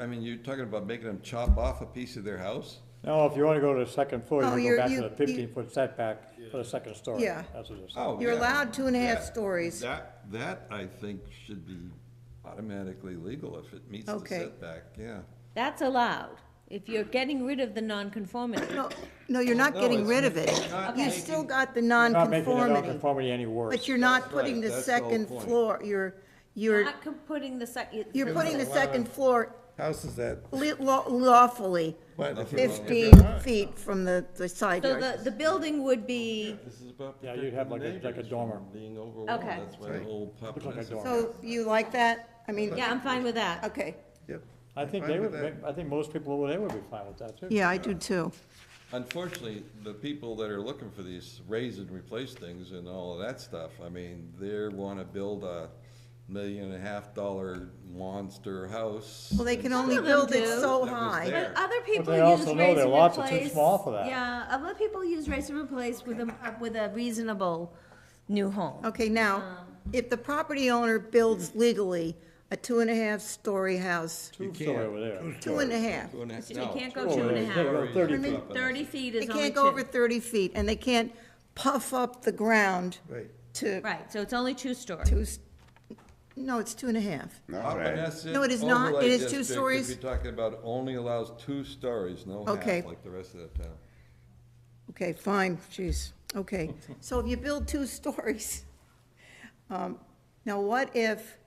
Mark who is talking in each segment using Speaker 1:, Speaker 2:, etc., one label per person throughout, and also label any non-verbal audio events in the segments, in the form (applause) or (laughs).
Speaker 1: I mean, you're talking about making them chop off a piece of their house?
Speaker 2: No, if you wanna go to the second floor, you
Speaker 3: Oh,
Speaker 2: wanna go
Speaker 3: you're-
Speaker 2: back
Speaker 3: you-
Speaker 2: to the
Speaker 3: you-
Speaker 2: fifteen-foot setback for the second story.
Speaker 3: Yeah. Uh,
Speaker 2: That's what it's.
Speaker 1: Oh,
Speaker 3: You're
Speaker 1: yeah.
Speaker 3: allowed two and a half
Speaker 1: That-
Speaker 3: stories.
Speaker 1: That, that I think should be automatically legal if it meets the
Speaker 3: Okay.
Speaker 1: setback, yeah.
Speaker 4: That's allowed, if you're getting rid of the nonconformity.
Speaker 3: No, no, you're not
Speaker 1: No,
Speaker 3: getting
Speaker 1: it's
Speaker 3: rid of it.
Speaker 1: not
Speaker 3: You
Speaker 1: making-
Speaker 3: still got the
Speaker 2: Not making the
Speaker 3: nonconformity,
Speaker 2: non-conformity any worse.
Speaker 3: but you're not
Speaker 1: That's right,
Speaker 3: putting the
Speaker 1: that's the whole
Speaker 3: second
Speaker 1: point.
Speaker 3: floor, you're, you're,
Speaker 4: Not co- putting the sec.
Speaker 3: you're putting the second floor
Speaker 5: House is that,
Speaker 3: li- law- lawfully
Speaker 5: what, if you-
Speaker 3: fifteen feet from the, the side
Speaker 4: So
Speaker 3: yard.
Speaker 4: the, the building would be,
Speaker 1: This is about
Speaker 2: Yeah, you'd have like a- like a
Speaker 1: protecting the neighbors
Speaker 2: dormer.
Speaker 1: from Being overwhelmed,
Speaker 4: Okay.
Speaker 1: that's why the whole
Speaker 2: Looks like a
Speaker 1: populace.
Speaker 2: dorm.
Speaker 3: So you like that? I mean,
Speaker 4: yeah, I'm fine with that.
Speaker 3: okay.
Speaker 5: yep.
Speaker 2: I think
Speaker 5: I'm
Speaker 2: they
Speaker 5: fine
Speaker 2: would,
Speaker 5: with that.
Speaker 2: ma- I think most people over there would be fine with that too.
Speaker 3: Yeah, I do too.
Speaker 1: Unfortunately, the people that are looking for these raise and replace things and all of that stuff, I mean, they wanna build a million and a half dollar monster house.
Speaker 3: Well, they can
Speaker 1: and
Speaker 3: only
Speaker 4: Some of them
Speaker 3: build it
Speaker 4: do.
Speaker 3: so
Speaker 1: That was
Speaker 3: high.
Speaker 1: there.
Speaker 4: But other people
Speaker 2: they
Speaker 4: use raise
Speaker 2: also
Speaker 4: and
Speaker 2: know
Speaker 4: replace.
Speaker 2: their lots are too small for that.
Speaker 4: Yeah, other people use raise and replace with a, with a reasonable new home.
Speaker 3: Okay, now,
Speaker 4: Um.
Speaker 3: if the property owner builds legally a two and a half story house,
Speaker 2: Two story over there.
Speaker 3: two and a half,
Speaker 1: Two and a half-
Speaker 4: You
Speaker 1: no,
Speaker 4: can't
Speaker 1: two
Speaker 4: go two and a
Speaker 2: They
Speaker 4: half.
Speaker 2: go thirty
Speaker 3: Maybe-
Speaker 2: feet.
Speaker 1: up and-
Speaker 4: Thirty feet
Speaker 3: they
Speaker 4: is only
Speaker 3: can't go over
Speaker 4: two.
Speaker 3: thirty feet, and they can't puff up the ground
Speaker 5: Right.
Speaker 3: to,
Speaker 4: Right, so it's only two story.
Speaker 3: to, s- no, it's two and a half.
Speaker 1: Opponesit
Speaker 3: No, it is not.
Speaker 1: overlay
Speaker 3: It is two
Speaker 1: district, if
Speaker 3: stories.
Speaker 1: You're talking about only allows two stories, no half,
Speaker 3: Okay.
Speaker 1: like the rest of the town.
Speaker 3: Okay, fine, jeez, okay. So if you build two (laughs) stories, um, now what if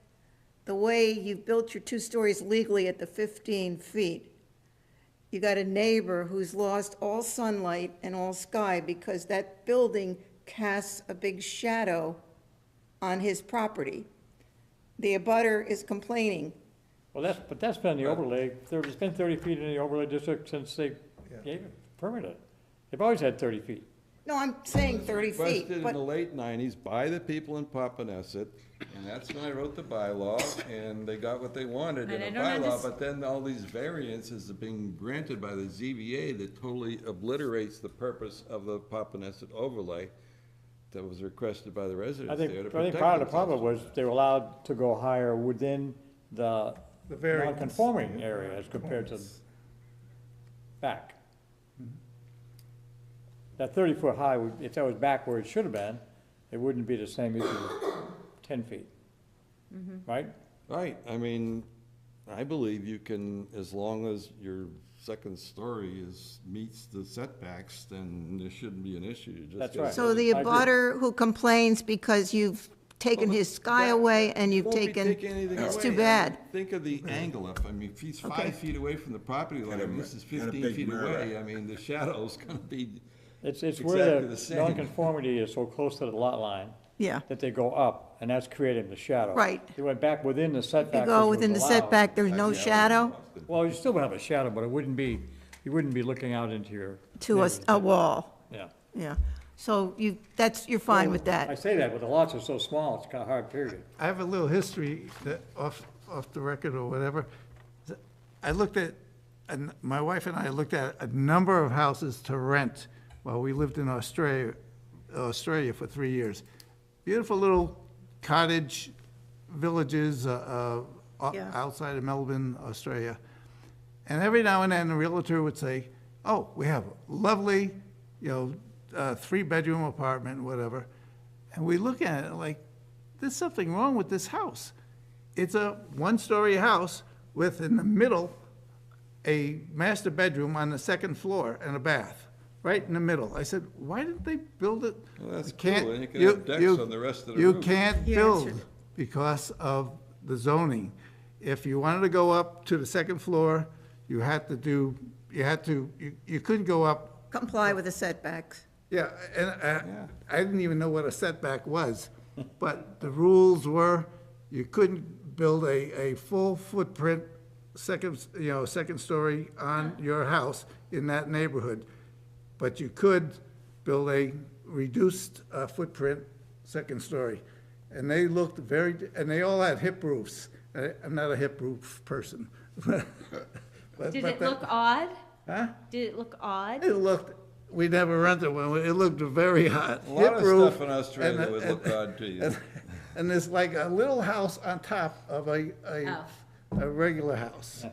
Speaker 3: the way you've built your two stories legally at the 15 feet, you got a neighbor who's lost all sunlight and all sky because that building casts a big shadow on his property? The abutter is complaining.
Speaker 2: Well, that's, but that's been the overlay, there, it's been thirty feet in the overlay district since they gave it, permitted it. They've always had thirty feet.
Speaker 3: No, I'm saying 30
Speaker 1: Requested
Speaker 3: feet,
Speaker 1: in the
Speaker 3: but,
Speaker 1: late nineties by the people in Papaneset, and that's when I wrote the bylaw, and they got what they wanted in
Speaker 4: And
Speaker 1: a
Speaker 4: I don't
Speaker 1: bylaw,
Speaker 4: underst-
Speaker 1: but then all these variances are being granted by the ZBA that totally obliterates the purpose of the Papaneset overlay that was requested by the
Speaker 2: I
Speaker 1: residents
Speaker 2: think,
Speaker 1: there to
Speaker 2: I
Speaker 1: protect
Speaker 2: think part of the problem
Speaker 1: themselves.
Speaker 2: was they were allowed to go higher within the
Speaker 5: The variance.
Speaker 2: non-conforming area as compared to back. That thirty foot high, would- if that was back where it should have been, it wouldn't be the same issue as ten feet.
Speaker 3: Mm-hmm.
Speaker 2: Right?
Speaker 1: Right, I mean, I believe you can, as long as your second story is, meets the setbacks, then there shouldn't be an issue. You just
Speaker 2: That's
Speaker 1: gotta
Speaker 2: right.
Speaker 3: so
Speaker 1: build it.
Speaker 3: the
Speaker 2: I agree.
Speaker 3: abutter who complains because you've taken his sky
Speaker 1: That-
Speaker 3: away and you've
Speaker 1: Won't be
Speaker 3: taken,
Speaker 1: taking anything
Speaker 3: it's
Speaker 1: away.
Speaker 3: too
Speaker 1: I mean,
Speaker 3: bad.
Speaker 1: Think of the angle up, I mean, if he's
Speaker 3: Okay.
Speaker 1: five feet away from the property line, and this is
Speaker 5: got a
Speaker 1: fifteen
Speaker 5: big
Speaker 1: feet
Speaker 5: mirror.
Speaker 1: away, I mean, the shadow's gonna be,
Speaker 2: It's, it's
Speaker 1: Exactly
Speaker 2: where
Speaker 1: the
Speaker 2: the
Speaker 1: same.
Speaker 2: non-conformity is so close to the lot line
Speaker 3: Yeah.
Speaker 2: that they go up, and that's creating the shadow.
Speaker 3: Right.
Speaker 2: They went back within the setback.
Speaker 3: You go
Speaker 2: which was
Speaker 3: within the
Speaker 2: allowed.
Speaker 3: setback, there's no shadow
Speaker 2: Well, you still would have a shadow, but it wouldn't be, you wouldn't be looking out into your.
Speaker 3: to a, a wall,
Speaker 2: Yeah.
Speaker 3: yeah. So you, that's, you're fine with
Speaker 2: I
Speaker 3: that.
Speaker 2: say that, but the lots are so small, it's kind of hard, period.
Speaker 5: I have a little history that, off, off the record or whatever. I looked at, and my wife and I looked at a number of houses to rent while we lived in Australia, Australia for three years. Beautiful little cottage villages, uh, uh, o-
Speaker 3: Yeah.
Speaker 5: outside of Melbourne, Australia. And every now and then, a realtor would say, oh, we have a lovely, you know, uh, three-bedroom apartment, whatever. And we look at it like, there's something wrong with this house. It's a one-story house with in the middle a master bedroom on the second floor and a bath, right in the middle. I said, why didn't they build it?
Speaker 1: Well, that's
Speaker 5: You can't-
Speaker 1: cool, and you can have decks on the rest of the
Speaker 5: You
Speaker 1: roof.
Speaker 5: can't
Speaker 3: Yeah, that's
Speaker 5: build
Speaker 3: true.
Speaker 5: because of the zoning. If you wanted to go up to the second floor, you had to do, you had to, you, you couldn't go up
Speaker 3: Comply with the setbacks.
Speaker 5: yeah, and I, I didn't even know what a setback was, (laughs) but the rules were, you couldn't build a, a full footprint second, you know, second story on your house in that neighborhood. But you could build a reduced uh, footprint second story. And they looked very, and they all had hip roofs. I- I'm not a hip roof person. (laughs) But-
Speaker 4: Did
Speaker 5: but
Speaker 4: it
Speaker 5: that-
Speaker 4: look odd?
Speaker 5: Huh?
Speaker 4: Did it look odd?
Speaker 5: It looked, we never rented one, it looked very hot.
Speaker 1: a lot of
Speaker 5: Hip roof,
Speaker 1: stuff in Australia
Speaker 5: and-
Speaker 1: would look odd to you.
Speaker 5: And and there's like a little house on top of a, a,
Speaker 4: Oh.
Speaker 5: a regular house.